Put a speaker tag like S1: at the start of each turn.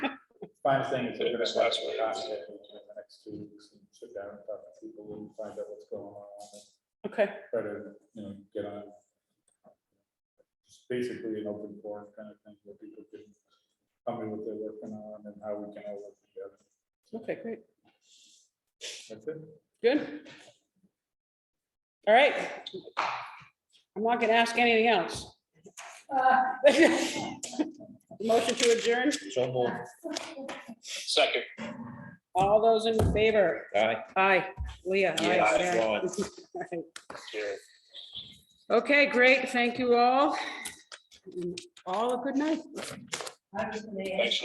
S1: final thing is we're gonna
S2: That's
S1: have
S2: last
S1: to
S2: week.
S1: contact them in the next two weeks and sit down and talk to people and find out what's going on. and
S3: Okay,
S1: Try to, you know, get on. Just basically an open forum kind of thing where people can tell me what they're working on and how we can all work together.
S3: okay, great,
S1: That's it.
S3: good. All right. I'm not gonna ask anything else. Motion to adjourn,
S4: So moved.
S2: Second.
S3: all those in favor?
S4: Aye.
S3: Aye, Leah, aye,
S4: Yeah, aye,
S3: Sarah.
S4: Ron.
S3: Right.
S2: Jared.
S3: Okay, great, thank you all. And All a good night.
S2: Thanks.